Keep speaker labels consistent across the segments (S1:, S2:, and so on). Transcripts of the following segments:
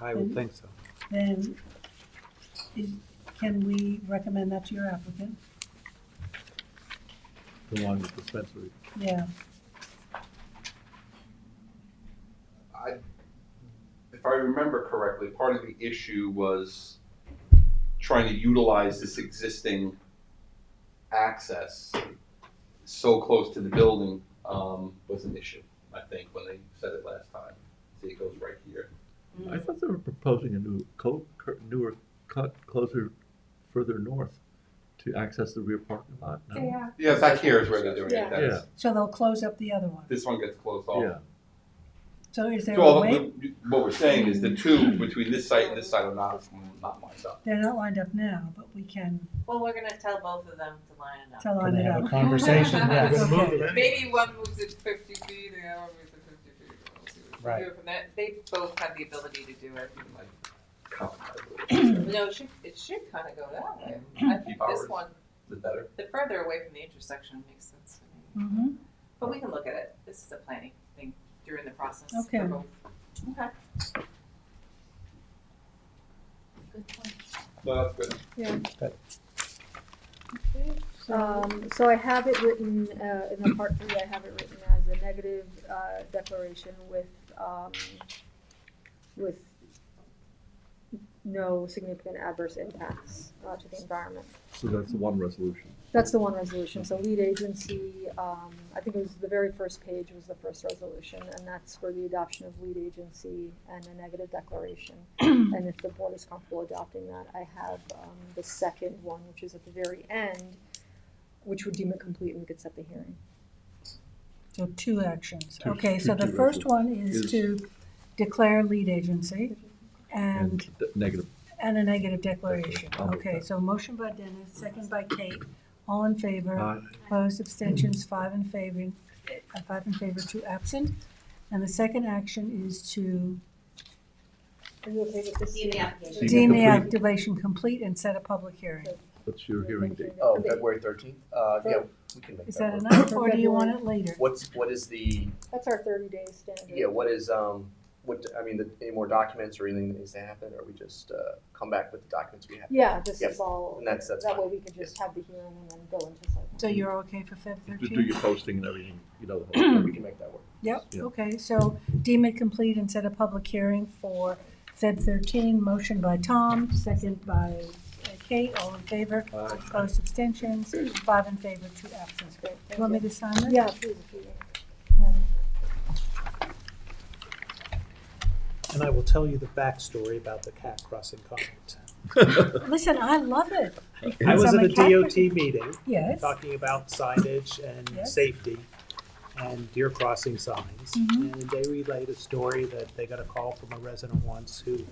S1: I would think so.
S2: then is, can we recommend that to your applicant?
S3: the one with dispensary.
S2: Yeah,
S4: I, if I remember correctly, part of the issue was trying to utilize this existing access so close to the building, um, was an issue, I think, when they said it last time. See, it goes right here.
S3: I thought they were proposing a new co, cur- newer cut closer, further north to access the rear parking lot. no?
S5: Um,
S6: They are.
S4: Yeah, back here is where they're doing
S6: Yeah.
S4: it, that's,
S2: so they'll close up the other one.
S4: this one gets closed off.
S3: Yeah,
S2: So is there
S4: So
S2: a
S4: all
S2: way,
S4: the- what we're saying is the two between this site and this site are not, not lined up.
S2: they're not lined up now, but we can
S7: Well, we're gonna tell both of them to line up.
S2: tell
S5: Can
S2: on
S5: they
S2: it
S5: have a
S2: up.
S5: conversation?
S6: We're
S5: Yes.
S2: gonna move them
S7: Maybe one moves it fifty feet, and the other one moves it fifty feet. We'll see what we
S5: Right.
S7: do from that. They both have the ability to do it.
S4: Compromise,
S7: No, it should, it should kinda go that way. I think this
S4: Powers.
S7: one,
S4: the better.
S7: the further away from the intersection makes sense to me.
S2: Mm-hmm,
S7: But we can look at it. This is a planning thing during the process. Oh for
S2: Okay.
S7: both. Okay.
S6: Good point.
S4: No, that's good.
S6: Um, so I have it written, uh, in the part three, I have it written as a negative, uh, declaration with, um, with no significant adverse impacts, uh, to the environment.
S3: so that's the one resolution.
S6: That's the one resolution, so lead agency, um, I think it was the very first page was the first resolution, and that's for the adoption of lead agency and a negative declaration. And if the board is comfortable adopting that, I have, um, the second one, which is at the very end, which would deem it complete and we could set the hearing.
S2: so two actions.
S3: Two-
S2: Okay,
S3: two-
S2: so the
S3: two
S2: first
S3: actions.
S2: one is
S3: Is-
S2: to declare lead agency and
S3: the Negative,
S2: And a negative declaration.
S3: I'll move
S2: Okay,
S3: that.
S2: so motion by Dennis, second by Kate. All in favor,
S3: Aye.
S2: opposed, abstentions, five in favor, uh, five in favor, two absent. And the second action is to
S6: Are you okay with this?
S8: Deem the
S3: Deem
S8: application.
S3: it
S2: deem the
S3: complete.
S2: activation complete and set a public hearing.
S3: what's your hearing date?
S9: Oh, February thirteenth, uh, yeah, we can make
S2: Is that
S9: that work.
S2: enough, or do you want it later?
S9: What's, what is the,
S6: That's our thirty day standard.
S9: yeah, what is, um, what, I mean, the, any more documents or anything that needs to happen, or we just, uh, come back with the documents we have?
S6: Yeah, this
S9: Yep.
S6: is all,
S9: And that's, that's
S6: that
S9: fine.
S6: way we could just have the hearing and then go into site.
S2: So you're okay for Feb
S3: Just do
S2: thirteenth?
S3: your posting and everything, you know, the whole
S9: We
S3: thing.
S9: can make that work.
S2: Yep,
S3: Yeah.
S2: okay, so deem it complete and set a public hearing for Feb thirteen, motion by Tom, second by uh, Kate, all in favor.
S3: Aye.
S2: Opposed, abstentions, five in favor, two absent.
S6: That's great,
S2: Do
S6: thank
S2: you want me
S6: you.
S2: to sign this?
S6: Yeah, please, if you can.
S5: And I will tell you the backstory about the cat crossing comment.
S2: Listen, I love it,
S5: I was at
S2: Someone
S5: a
S2: cat-
S5: DOT meeting
S2: yes.
S5: talking about signage and
S2: Yes.
S5: safety and deer crossing signs.
S2: Mhm.
S5: And they relayed a story that they got a call from a resident once who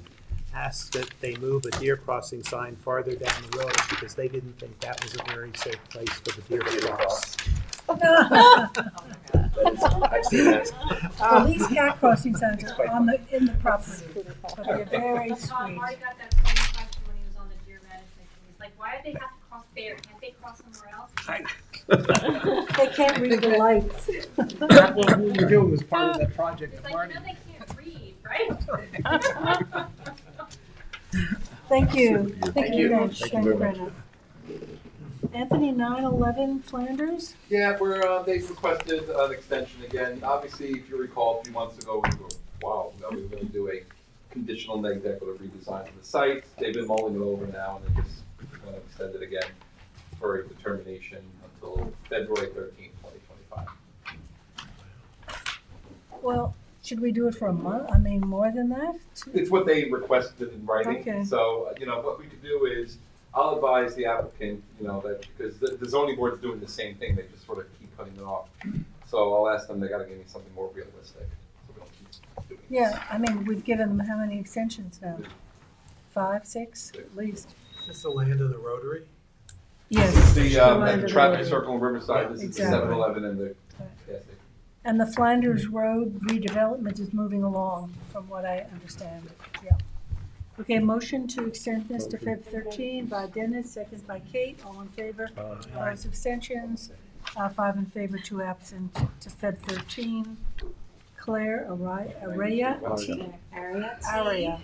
S5: asked that they move a deer crossing sign farther down the road because they didn't think that was a very safe place for the deer to cross.
S7: Oh my God.
S9: That is, I've seen that.
S2: Well, these cat crossing signs are
S9: quite
S2: on the, in the property,
S6: Please, if you
S2: but
S6: can.
S2: they're very
S8: Tom
S2: sweet.
S8: Marty got that same question when he was on the deer management committee. He's like, why do they have to cross there? Can't they cross somewhere else?
S2: They can't read the lights.
S5: That's what we were doing was part of that project
S8: He's
S5: of
S8: like,
S5: Marty.
S8: you know they can't read, right?
S2: Thank you.
S9: Thank you.
S2: very much.
S3: Thank you very much.
S2: Brenna. Anthony, nine eleven Flanders?
S4: Yeah, we're, uh, they requested an extension again. Obviously, if you recall, a few months ago, we were, wow, now we're gonna do a conditional neg deck with a redesign of the site. They've been mulling it over now and they just wanna extend it again for a determination until February thirteenth, twenty twenty-five.
S2: Well, should we do it for a month? I mean, more than that?
S4: It's what they requested in
S2: Okay.
S4: writing, so, you know, what we could do is, I'll advise the applicant, you know, that, because the the zoning board's doing the same thing, they just sort of keep cutting it off. So I'll ask them, they gotta give me something more realistic, so we don't keep doing this.
S2: Yeah, I mean, we've given them how many extensions now? Five, six, at least?
S5: Is the land of the Rotary?
S2: Yes.
S4: The, um,
S2: Remind
S4: at the
S2: them
S4: traffic
S2: later.
S4: circle in Riverside, this is the
S2: Exactly.
S4: seven eleven and the
S2: Right.
S4: gas station.
S2: And the Flanders Road redevelopment is moving along, from what I understand, yeah. Okay, motion to extend this to Feb thirteen by Dennis, second by Kate, all in favor. Opposed, abstentions, uh, five in favor, two absent, to Feb thirteen. Claire Araya, Araya,
S4: Araya.
S2: Araya.